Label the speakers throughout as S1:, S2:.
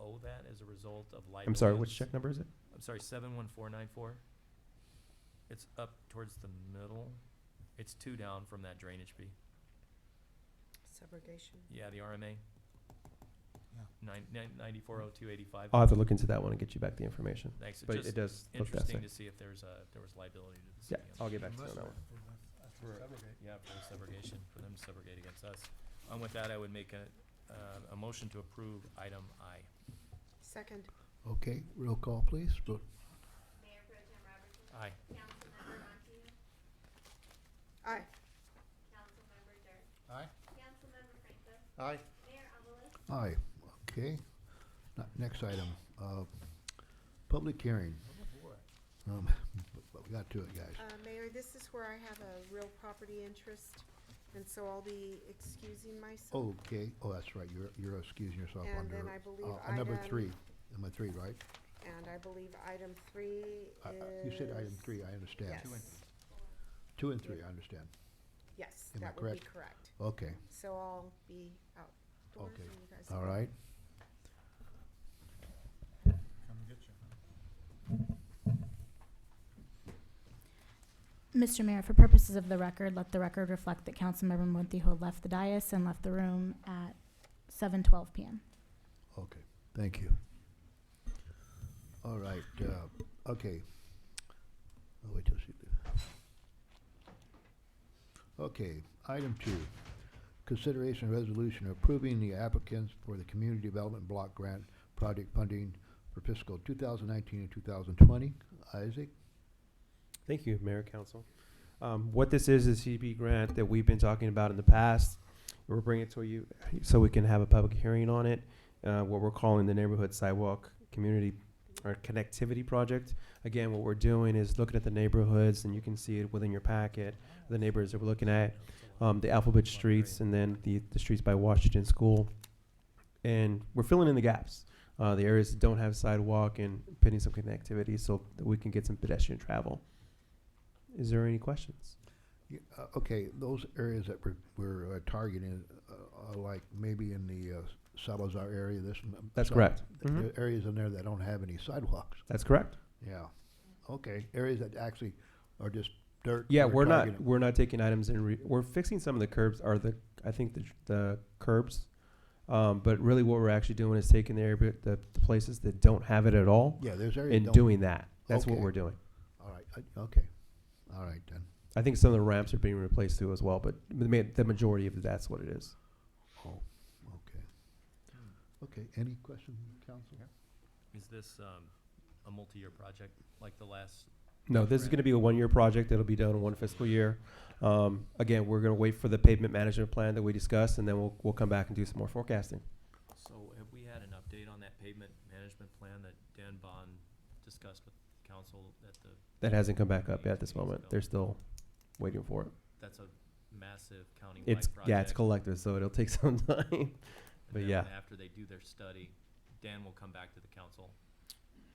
S1: owe that as a result of liabilities.
S2: I'm sorry, which check number is it?
S1: I'm sorry, seven one four nine four. It's up towards the middle. It's two down from that drainage fee.
S3: Subrogation.
S1: Yeah, the RMA.
S4: Yeah.
S1: Nine, nine, ninety-four oh two eighty-five.
S2: I'll have to look into that one and get you back the information.
S1: Thanks. It's
S2: But
S1: just
S2: it does look that
S1: interesting to
S2: same.
S1: see if there's a, there was liability to the city.
S2: Yeah,
S1: on
S2: I'll
S1: that.
S2: get back to you on that one.
S1: For- Yeah, for the subrogation, for them to subrogate against us. And with that, I would make a, uh, a motion to approve item I.
S3: Second,
S4: Okay, roll call please, vote.
S5: Mayor Pro Tem Robertson,
S1: Aye.
S5: Councilmember Montier,
S3: aye.
S5: Councilmember Dirk,
S6: Aye.
S5: Councilmember Franco,
S6: Aye.
S5: Mayor Evelis,
S4: Aye, okay. Now, Next item, uh, public hearing.
S3: Oh,
S4: Um, but- but we got to it, guys.
S3: Uh, Mayor, this is where I have a real property interest, and so I'll be excusing myself.
S4: Okay, oh, that's right, you're, you're excusing yourself
S3: And
S4: under,
S3: then I believe
S4: uh, on number
S3: item-
S4: three, number three, right?
S3: And I believe item three
S4: I- I-
S3: is.
S4: Uh, You said item three, uh, I understand.
S3: Yes,
S1: Two and-
S4: Two and three, I understand.
S3: yes,
S4: Am I
S3: that would be
S4: correct?
S3: correct.
S4: Okay,
S3: So I'll be outdoors
S4: Okay.
S3: and you guys.
S4: all right.
S6: Come get you.
S7: Mr. Mayor, for purposes of the record, let the record reflect that Councilmember Montijo left the dais and left the room at seven twelve PM.
S4: Okay, thank you. All right, uh, okay. I'll wait till she leaves. Okay, item two, consideration resolution approving the applicants for the Community Development Block Grant Project Funding for fiscal two thousand nineteen and two thousand twenty. Isaac?
S2: Thank you, Mayor Council. Um, what this is, is CB grant that we've been talking about in the past. We'll bring it to you so we can have a public hearing on it, uh, what we're calling the Neighborhood Sidewalk Community or Connectivity Project. Again, what we're doing is looking at the neighborhoods, and you can see it within your packet, the neighborhoods that we're looking at. um, the alphabet streets and then the, the streets by Washington School. And we're filling in the gaps, uh, the areas that don't have sidewalk and putting some connectivity so that we can get some pedestrian travel. Is there any questions?
S4: Yeah, uh, okay, those areas that we're, we're uh, targeting, uh, are like maybe in the uh, Salazar area, this. m-
S2: That's
S4: some-
S2: correct.
S4: th-
S2: Mhm.
S4: there are Areas in there that don't have any sidewalks.
S2: That's correct.
S4: Yeah, okay, areas that actually are just dirt.
S2: Yeah, we're not
S4: targeting.
S2: we're not taking items and re- we're fixing some of the curbs are the I think the the curbs, um, but really what we're actually doing is taking the area the, the places that don't have it at all
S4: Yeah, there's areas.
S2: and
S4: don't-
S2: doing that. That's what
S4: Okay.
S2: we're doing.
S4: All right, I- okay, all right then,
S2: I think some of the ramps are being replaced too as well, but the, ma- the majority of that's what it is.
S4: oh, okay. Okay, any questions, council?
S1: Is this, um, a multi-year project like the last?
S2: No, this is going to be a one-year project. It'll be done in one fiscal year. Um, again, we're going to wait for the pavement management plan that we discussed, and then we'll, we'll come back and do some more forecasting.
S1: So have we had an update on that pavement management plan that Dan Bond discussed with council at the,
S2: That hasn't come back up yet at this moment. They're still waiting for it.
S1: that's a massive countywide
S2: It's
S1: project?
S2: yeah, it's collective, so it'll take some time.
S1: And
S2: but
S1: then
S2: yeah.
S1: After they do their study, Dan will come back to the council.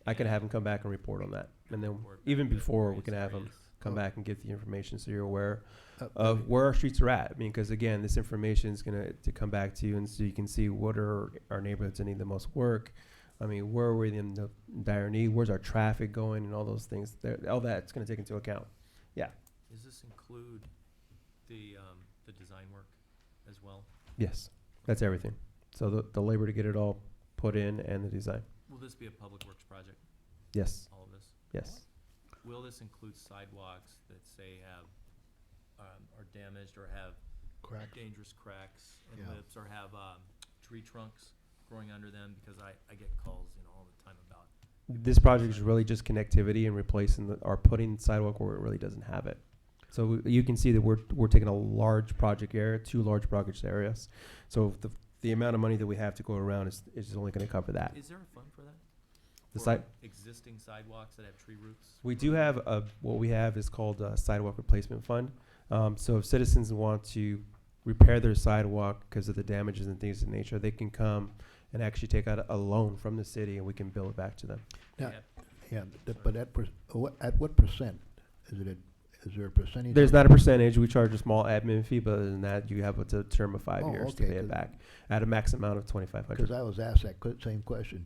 S2: I can have them come back and report on that, and then
S1: Report back
S2: even
S1: the
S2: before we
S1: various
S2: can have them
S1: areas.
S2: come
S4: Oh.
S2: back and get the information, so you're aware
S4: Uh,
S2: of where our streets are at. I mean, because again, this information is going to come back to you, and so you can see what are our neighborhoods that need the most work. I mean, where are we in the dire need? Where's our traffic going, and all those things. There, all that's going to take into account.
S1: Does this include the, um, the design work as well?
S2: Yes, that's everything. So the, the labor to get it all put in and the design.
S1: Will this be a public works project,
S2: Yes,
S1: all of this?
S2: yes.
S1: Will this include sidewalks that say have, um, are damaged or have
S4: Crack,
S1: dangerous cracks and
S4: Yeah.
S1: lips or have, um, tree trunks growing under them? Because I, I get calls, you know, all the time about,
S2: This project is really just connectivity and replacing the, or putting sidewalk where it really doesn't have it. So we- you can see that we're, we're taking a large project area, two large project areas. So the, the amount of money that we have to go around is, is only gonna cover that.
S1: is there a fund for that?
S2: The
S1: For
S2: side-
S1: Existing sidewalks that have tree roots?
S2: We do have a, what we have is called a sidewalk replacement fund. Um, so if citizens want to repair their sidewalk because of the damages and things of nature, they can come and actually take out a loan from the city and we can bill it back to them.
S1: They
S4: Yeah.
S1: have-
S4: yeah, th- but at, per- what- at what percent? Is it, a- is there a percentage?
S2: There's
S4: of-
S2: not a percentage. We charge a small admin fee, but other than that, you have a t- term of five
S4: Oh,
S2: years
S4: okay,
S2: to pay it
S4: 'cause-
S2: back at a max amount of twenty-five
S4: Cause
S2: hundred.
S4: I was asked that que- same question,